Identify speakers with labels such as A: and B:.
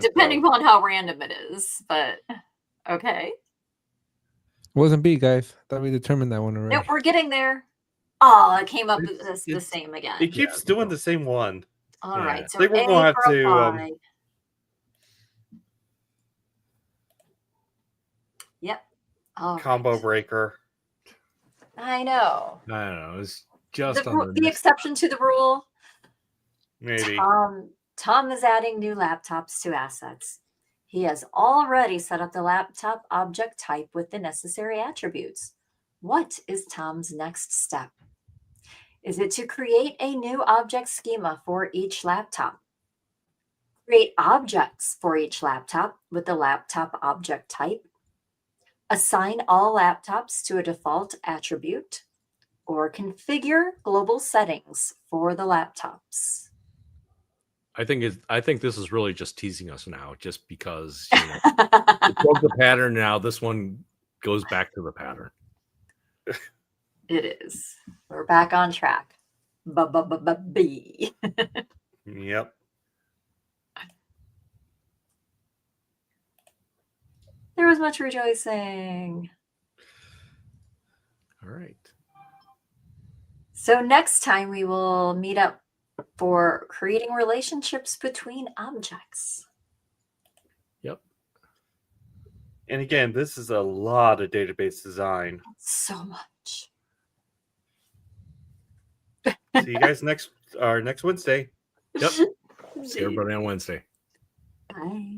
A: Depending upon how random it is, but okay.
B: It wasn't B, guys. Thought we determined that one already.
A: Nope, we're getting there. Oh, it came up
C: It's-
A: as the
C: it's-
A: same
C: It
A: again.
C: keeps
D: Yeah.
C: doing the same one.
A: All
D: yeah.
A: right,
D: I
A: so
C: think we're
A: A
C: gonna have
A: for
C: to, um,
A: apply. Yep. All
C: Combo
A: right.
C: breaker.
A: I know.
D: I don't know. It's
A: The,
D: just
A: ru-
D: on
A: the exception to the rule.
C: Maybe.
A: Um, Tom is adding new laptops to assets. He has already set up the laptop object type with the necessary attributes. What is Tom's next step? Is it to create a new object schema for each laptop? Create objects for each laptop with the laptop object type? Assign all laptops to a default attribute? Or configure global settings for the laptops?
D: I think it's, I think this is really just teasing us now, just because you know, it broke the pattern. Now this one goes back to the pattern.
A: it is. We're back on track. B.
C: Yep.
A: There was much rejoicing.
D: All right.
A: So next time we will meet up for creating relationships between objects.
C: And again, this is a lot of database design.
A: So much.
C: See you guys next our next Wednesday.
D: Yep. See everybody on Wednesday.
A: Bye.